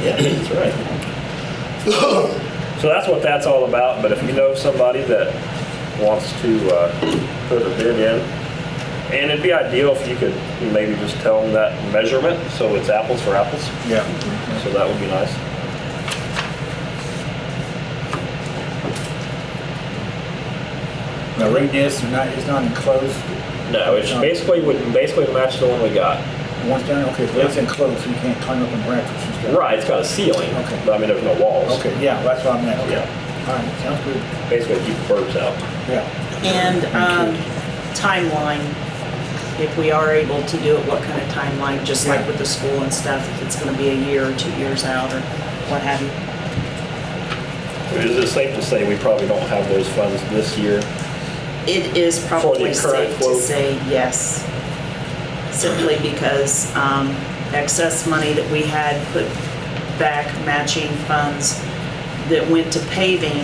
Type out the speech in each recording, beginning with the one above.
Yeah, that's right. So that's what that's all about, but if you know somebody that wants to uh, put a bid in, and it'd be ideal if you could maybe just tell them that measurement, so it's apples for apples, Yeah. so that would be nice. Now, read this, and not, it's not enclosed, No, it's basically would, basically match the one we got. once down, okay, so it's enclosed, so you can't climb up and branches and stuff. Right, it's got a ceiling, Okay. but I mean, there's no walls. Okay, yeah, that's what I meant, okay. Yeah. All right, sounds good, Basically keep the birds out. yeah. And um, timeline, if we are able to do it, what kind of timeline, just like with the school and stuff, if it's going to be a year or two years out or what have you. Is it safe to say we probably don't have those funds this year? It is probably current safe to quote. say yes, simply because um, excess money that we had put back, matching funds that went to paving,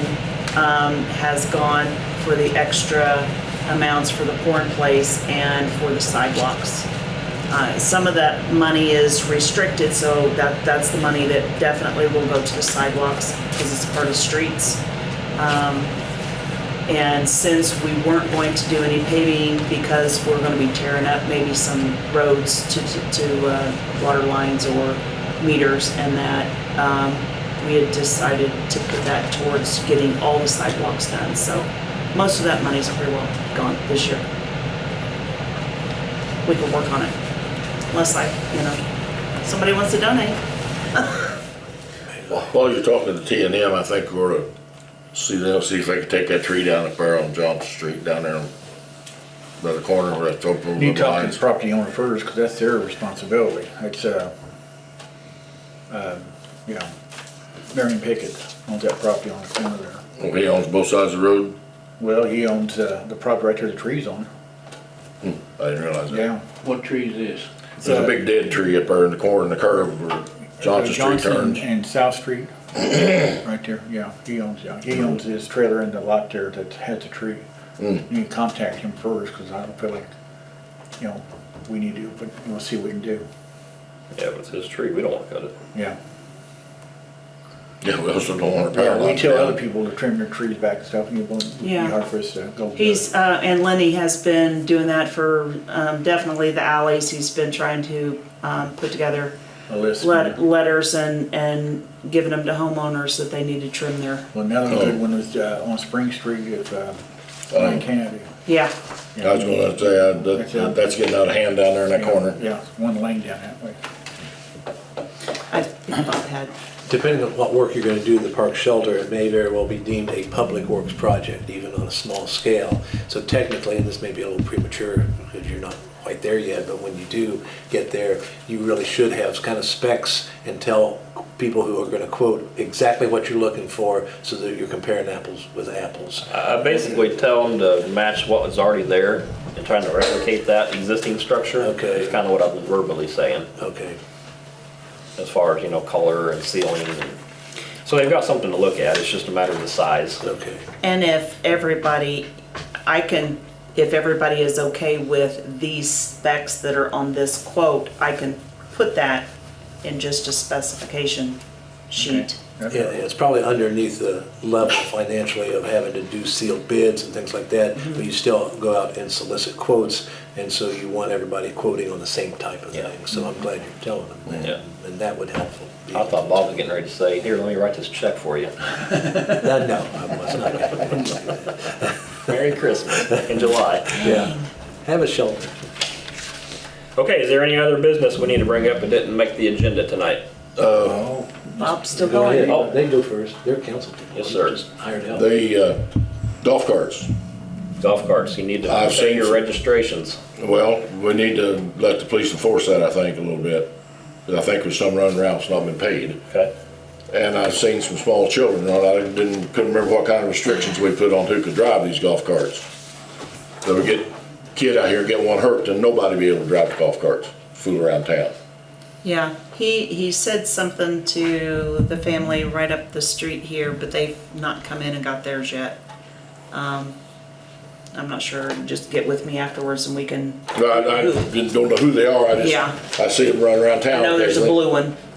um, has gone for the extra amounts for the corn place and for the sidewalks. Uh, Some of that money is restricted, so that, that's the money that definitely will go to the sidewalks because it's part of streets. And since we weren't going to do any paving because we're going to be tearing up maybe some roads to, to- to uh, water lines or meters and that, um, we had decided to put that towards getting all the sidewalks done. So most of that money's pretty well gone this year. We can work on it. Unless I, you know, somebody wants to donate. While you're talking to T and M, I think we ought to see them, see if they can take that tree down at Barrel and Johnson Street down there by the corner where that's open You with the talk to the lines. property owner first, because that's their responsibility, it's, uh, um, you know, Marion Pickett owns that property on the corner there. Well, He owns both sides of the road. Well, he owns, uh, the property right there the tree's on, I didn't realize that. yeah. What tree is this? There's a big dead tree up there in the corner in the curve Uh, where Uh, Johnson Street turns. And South Street, right there, yeah, he owns, yeah, he owns his trailer in the lot there that has the tree. You Mm. can contact him first, cause I don't feel like, you know, we need to, but we'll see what we can do, Yeah, but it's his tree, we don't want to cut it. yeah. Yeah, we also don't want to power Yeah, we line tell other down. people to trim their trees back and stuff, and it won't be Yeah. hard for us to go. do it. He's, uh, and Lenny has been doing that for, um, definitely the alleys. He's been trying to, um, put together A list. let, letters and, and giving them to homeowners that they need to trim their, Well, Another Oh. good one was, uh, on Spring Street at, uh, Ryan Kennedy. yeah. I Oh. was gonna say, uh, that, that's getting out of hand down there in that corner. Yeah, it's one lane down that way. I think Bob had, Depending on what work you're going to do in the park shelter, it may very well be deemed a public works project, even on a small scale. So technically, and this may be a little premature because you're not quite there yet, but when you do get there, you really should have kind of specs and tell people who are going to quote exactly what you're looking for so that you're comparing apples with apples. I I basically tell them to match what was already there and trying to replicate that existing structure. Okay. Is kind of what I'm verbally saying, Okay. as far as, you know, color and ceiling. and- So they've got something to look at, it's just a matter of the size. Okay. and if everybody, I can, if everybody is okay with these specs that are on this quote, I can put that in just a specification sheet. That's Yeah, right. it's probably underneath the level financially of having to do sealed bids and things like that, but you still go out and solicit quotes, and so you want everybody quoting on the same type of Yeah. thing, so I'm glad you're telling them Yeah. that, and that would help. I thought Bob was getting ready to say, here, let me write this check for you. No, no, I was not. gonna do that. Merry Christmas in July. Yeah, have a shelter. Okay, is there any other business we need to bring up that didn't make the agenda tonight? Bob's still Go ahead, going. Oh, they go first, they're council people. Yes, sir. Just Hired help. They, uh, golf carts. Golf carts, you need to I've pay seen your some. registrations. Well, we need to let the police enforce that, I think, a little bit. 'Cause I think there's some running around that's not been paid. Okay. And I've seen some small children, and I didn't, couldn't remember what kind of restrictions we put on who could drive these golf carts. So we get kid out here, get one hurt, then nobody be able to drive the golf carts, fool around town. Yeah, he, he said something to the family right up the street here, but they've not come in and got theirs yet. Um, I'm not sure, just get with me afterwards and we can, I, I didn't- don't know who they are, I Yeah. just, I see them running around I town. know there's a occasionally. blue one.